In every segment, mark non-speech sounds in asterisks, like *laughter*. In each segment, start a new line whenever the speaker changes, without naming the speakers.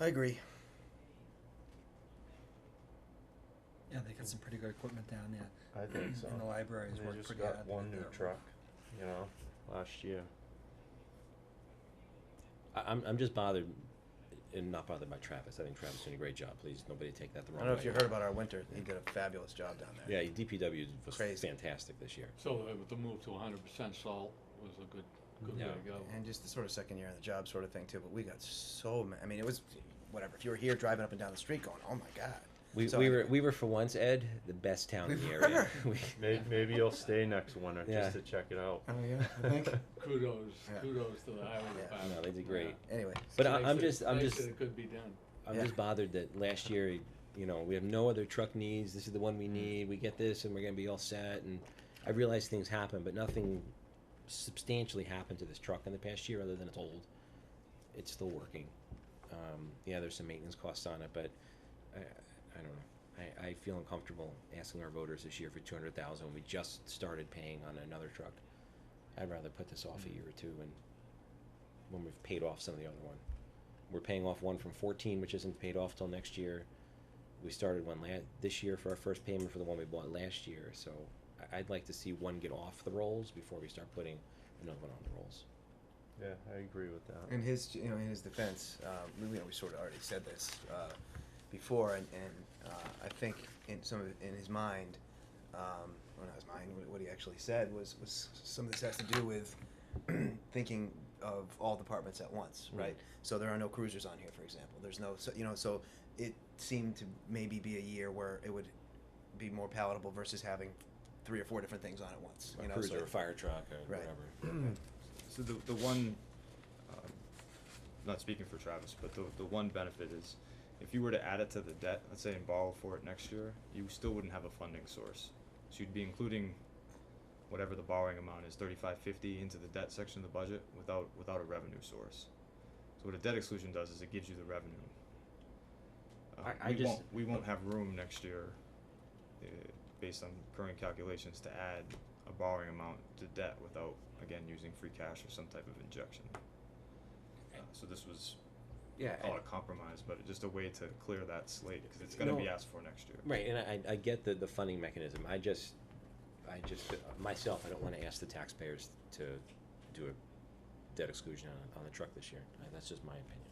I agree.
Yeah, they got some pretty good equipment down there,
I
*clears throat*
think so.
and the library's
They
worked
just
pretty hard.
got
to
one
get
new
that
truck, you know, last year.
I, I'm, I'm just bothered, and not bothered by Travis, I think Travis doing a great job, please, nobody take that the
I
wrong way.
don't know if you heard about our winter. He did a fabulous job down there.
Yeah, DPW was
Crazy.
fantastic this year.
So uh, the move to hundred percent salt was a good, good way
Yeah.
to go.
And just the sort of second year on the job sort of thing too. But we got so many. I mean, it was whatever. If you were here driving up and down the street, going, "Oh my god."
We,
So
we were,
anyway,
we were for once, Ed, the best
*laughs*
town in the
We
area. *laughs*
were.
We-
Maybe, maybe you'll stay next winter
Yeah.
just to check it out.
Oh, yeah, I think.
Kudos,
Yeah.
kudos to the highway
Yeah.
department.
No, they did great.
*laughs* Anyway,
But
It's
I-
nice
I'm
that-
just- I'm
nice
just-
that it could be done.
I'm
Yeah.
just bothered that last year, you know, we have no other truck needs. This is the one we need. We get this, and we're gonna be all set. And I realize things happen, but nothing substantially happened to this truck in the past year, other than it's old. It's still working. Um, yeah, there's some maintenance costs on it, but I, I don't know. I, I feel uncomfortable asking our voters this year for two hundred thousand when we just started paying on another truck. I'd rather put this off a year or two, and when we've paid off some of the other one we're paying off one from fourteen, which isn't paid off till next year. We started one la- this year for our first payment for the one we bought last year, so I- I'd like to see one get off the rolls before we start putting another one on the rolls.
*laughs* Yeah, I agree with that.
in his you know in his defense, um, we, we sort of already said this uh, before, and, and uh, I think in some of in his mind, um, well not his mind, what, what he actually said was was some of this has to do with *clears throat* thinking of all departments at once,
Mm.
right? So there are no cruisers on here, for example. There's no so you know so it seemed to maybe be a year where it would be more palatable versus having three or four different things on at once.
A
you know,
cruiser,
so
a fire truck, or
Right.
whatever.
So the, the one, um, not speaking for Travis, but the, the one benefit is if you were to add it to the debt, let's say and borrow for it next year, you still wouldn't have a funding source. So you'd be including whatever the borrowing amount is, thirty-five fifty into the debt section of the budget without, without a revenue source. So what a debt exclusion does is it gives you the revenue. Uh,
I- I
we
just-
won't, we won't have room next year, uh, based on current calculations, to add a borrowing amount to debt without, again, using free cash or some type of injection. Uh, So this was,
*clears throat* Yeah,
call it a compromise, but just a way to clear that slate, cause it's gonna
No.
be asked for next year.
Right, and I, I get the, the funding mechanism, I just, I just, myself, I don't wanna ask the taxpayers to do a debt exclusion on, on the truck this year, Uh, that's just my opinion.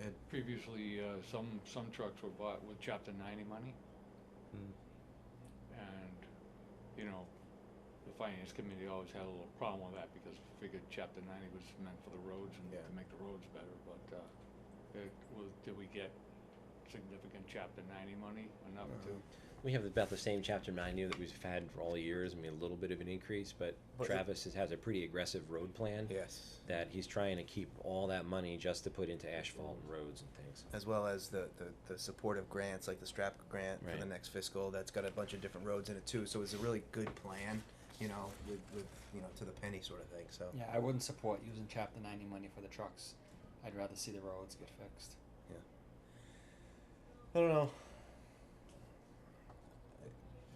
it-
Previously, uh, some, some trucks were bought with chapter ninety money
Mm.
and, you know, the finance committee always had a little problem with that because we figured chapter ninety was meant for the roads and
Yeah.
to make the roads better, but, uh, it was, did we get significant chapter ninety money enough
uh,
to?
We have about the same chapter ninety that we've had for all years, I mean, a little bit of an increase, but
But it-
Travis has- has a pretty aggressive road plan.
yes.
That he's trying to keep all that money just to put into asphalt and roads and things.
as well as the, the, the supportive grants like the strap grant for the
Right.
next fiscal that's got a bunch of different roads in it too so it's a really good plan you know with, with you know to the penny sort of thing so
Yeah, I wouldn't support using chapter ninety money for the trucks. I'd rather see the roads get fixed.
i don't know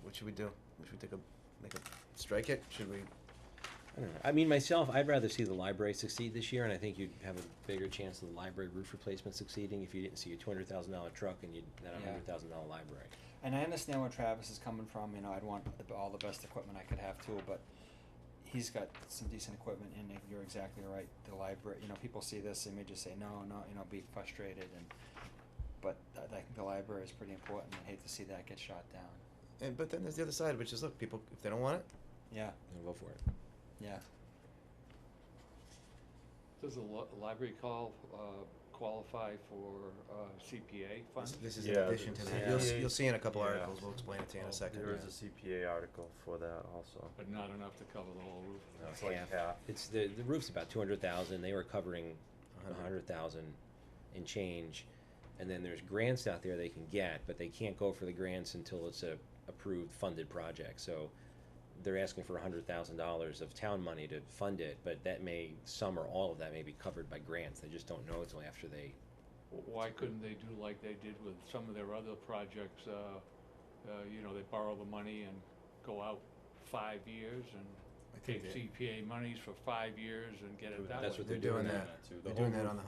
what should we do should we take a make a strike it should we
I don't know, I mean, myself, I'd rather see the library succeed this year, and I think you'd have a bigger chance of the library roof replacement succeeding if you didn't see a two hundred thousand dollar truck and you'd had a
Yeah.
hundred thousand dollar library.
And I understand where Travis is coming from. You know, I'd want the, all the best equipment I could have too, but he's got some decent equipment, and if you're exactly right. The library, you know, people see this, they may just say no, no, you know, be frustrated, and but I I think the library is pretty important. I hate to see that get shot down.
and but then there's the other side which is look people if they don't want it
Yeah,
I'll go for it.
yeah.
Does the li- library call, uh, qualify for, uh, CPA
this,
funds?
this is
Yeah,
in addition to
the
that you'll, s-
CPA
you'll see in a couple
yeah. Oh,
articles we'll explain it to you in a second
There is a CPA article for that also.
But not enough to cover the whole roof.
No,
It's like half.
It's the, the roof's about two hundred thousand, they were covering
A
a
hundred.
hundred thousand and change. And then there's grants out there they can get, but they can't go for the grants until it's a approved funded project, so they're asking for a hundred thousand dollars of town money to fund it, but that may, some or all of that may be covered by grants, they just don't know until after they,
W- Why couldn't they do like they did with some of their other projects, uh, uh, you know, they borrow the money and go out five years and
I think
take
they-
CPA monies for five years and get it that way?
that's what they're
They're doing
doing now.
that. they're doing that on the